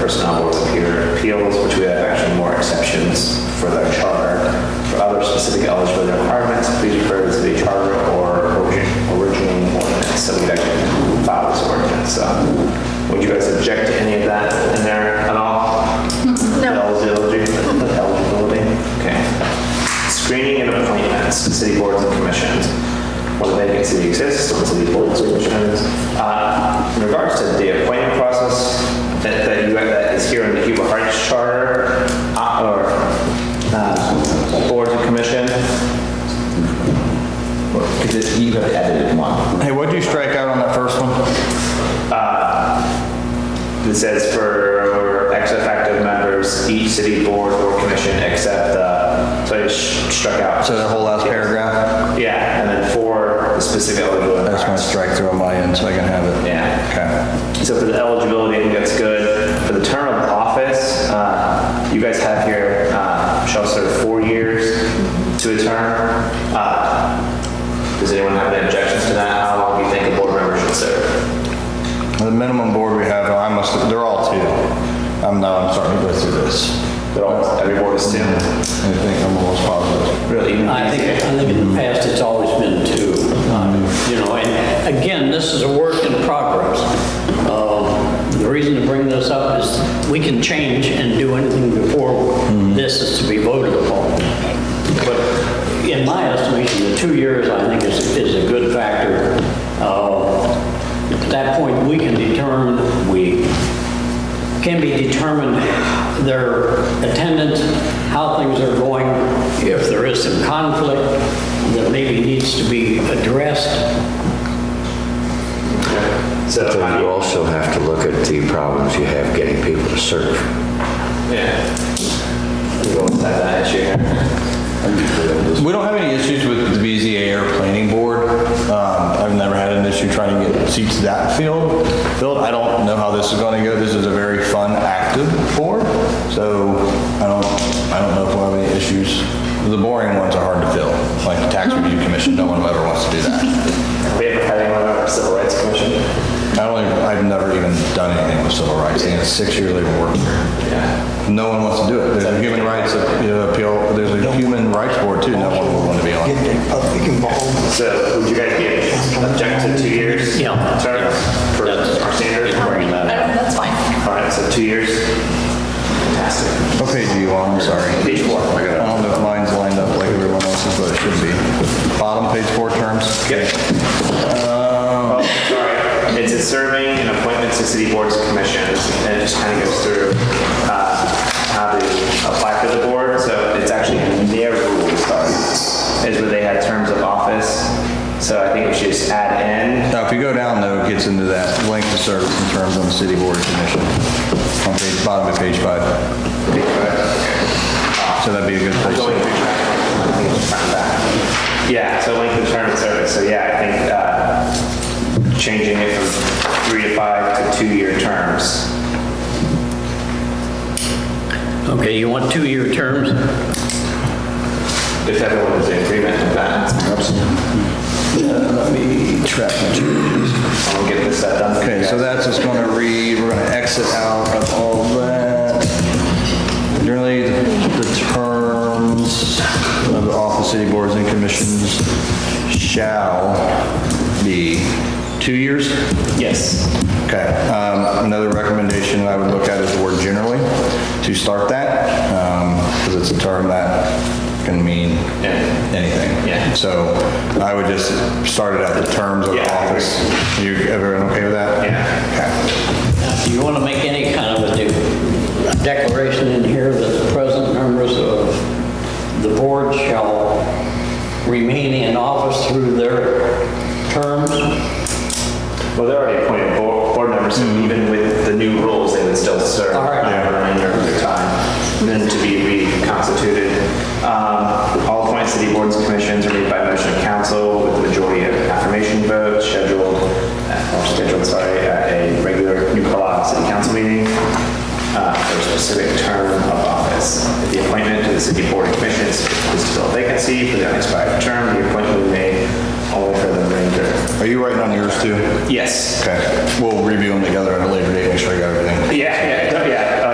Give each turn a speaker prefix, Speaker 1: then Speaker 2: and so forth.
Speaker 1: Personnel Board of Appeal- Appeals, which we have actually more exceptions for the charter. For other specific eligibility requirements, please refer to the charter or origi- original ordinance, so we actually file this ordinance. So would you guys object to any of that in there at all?
Speaker 2: No.
Speaker 1: Eligibility, eligibility, okay. Screening and appointments to city boards and commissions. When a vacancy exists on city boards and commissions. Uh, In regards to the appointment process that that you, that is here in the Human Rights Charter, uh, or uh, boards and commission,
Speaker 3: Because you have edited one.
Speaker 4: Hey, what'd you strike out on that first one?
Speaker 1: it says for ex officio members, each city board or commission except the, so I just struck out.
Speaker 4: So that whole last paragraph?
Speaker 1: Yeah, and then for the specific eligibility.
Speaker 4: I just want
Speaker 1: requirements.
Speaker 4: to strike through on my end so I can have it.
Speaker 1: Yeah.
Speaker 4: Okay.
Speaker 1: So for the eligibility, I think that's good. For the term of office, uh, you guys have here, uh, shall serve four years to a term. Uh, Does anyone have any objections to that? How long do you think a board member should serve?
Speaker 4: The minimum board we have, I must, they're all two. I'm not, I'm starting to go through this.
Speaker 1: They're all- Every board is two?
Speaker 4: I think I'm almost positive.
Speaker 1: Really? even
Speaker 5: I think, I think in the past, it's always been two, um, you know, and again, this is a work in progress. Um, The reason to bring this up is we can change and do anything before this is to be voted upon. But in my estimation, the two years, I think, is, is a good factor. Uh, At that point, we can determine, we can be determined their attendance, how things are going, if there is some conflict that maybe needs to be addressed.
Speaker 1: So, uh,
Speaker 6: So
Speaker 1: I
Speaker 6: you
Speaker 1: don't-
Speaker 6: also have to look at the problems you have getting people to serve.
Speaker 1: yeah. We both have that issue here.
Speaker 4: We don't have any issues with the BZA or planning board. Um, I've never had an issue trying to get seats that field filled. I don't know how this is going to go. This is a very fun, active board, so I don't, I don't know if we'll have any issues. The boring ones are hard to fill, like the tax review commission. No one ever wants to do that.
Speaker 1: We ever had anyone on our civil rights commission?
Speaker 4: I don't, even- I've never even done anything with civil rights. And it's six years they've worked here.
Speaker 1: Yeah.
Speaker 4: No one wants to do it. There's a human rights appeal, there's a human rights board too. No one will want to be on it.
Speaker 7: public involvement.
Speaker 1: So would you guys be objected to two years?
Speaker 5: Yeah.
Speaker 1: Term for our standard?
Speaker 2: That's fine.
Speaker 1: All right, so two years. Fantastic.
Speaker 4: What page are you on? I'm sorry.
Speaker 1: Page four.
Speaker 4: I don't know if mine's lined up like everyone else's, but it should be. Bottom page four terms.
Speaker 1: Okay. Oh, sorry. It's a serving and appointments to city boards and commissions, and it just kind of goes through uh, how to apply for the board. So it's actually in their rules, sorry, is where they had terms of office. So I think we should just add in.
Speaker 4: Now, if you go down though, it gets into that length of service in terms on the city board of commission. On page, bottom of page five. So that'd be a good place.
Speaker 1: Going
Speaker 4: to-
Speaker 1: through track, I think it's front and back. Yeah, so length of term of service, so yeah, I think uh, changing it from three to five to two-year terms.
Speaker 5: Okay, you want two-year terms?
Speaker 1: If everyone is in agreement with that,
Speaker 4: Let me track my changes.
Speaker 1: I'll get this set done. for you
Speaker 4: Okay, so
Speaker 1: guys.
Speaker 4: that's just gonna read, we're gonna exit out of all that. Generally, the the terms of the office city boards and commissions shall be two years?
Speaker 1: Yes.
Speaker 4: Okay, um, another recommendation I would look at is the word generally, to start that, because it's a term that can mean anything.
Speaker 1: Yeah.
Speaker 4: So I would just start it at the terms of
Speaker 1: Yeah, I agree.
Speaker 4: office. You, everyone okay with that?
Speaker 1: Yeah.
Speaker 4: Okay.
Speaker 5: Now, Do you want to make any kind of a de- declaration in here that the present members of the board shall remain in office through their terms?
Speaker 1: Well, they're already appointed board, board members, so even with the new rules, they would still serve.
Speaker 5: All right.
Speaker 1: The remainder of their time, then to be reconstituted. Um, All appointed city boards and commissions are made by motion of council with the majority of affirmation votes scheduled, uh, or scheduled, sorry, at a regular New Carlisle City Council meeting uh, for a specific term of office. If the appointment to the city board and commissions is to fill a vacancy for the unexpired term, the appointment will be made only for the remainder.
Speaker 4: Are you writing on yours too?
Speaker 1: Yes.
Speaker 4: Okay, we'll review them together at a later date, make sure I got everything.
Speaker 1: Yeah, yeah,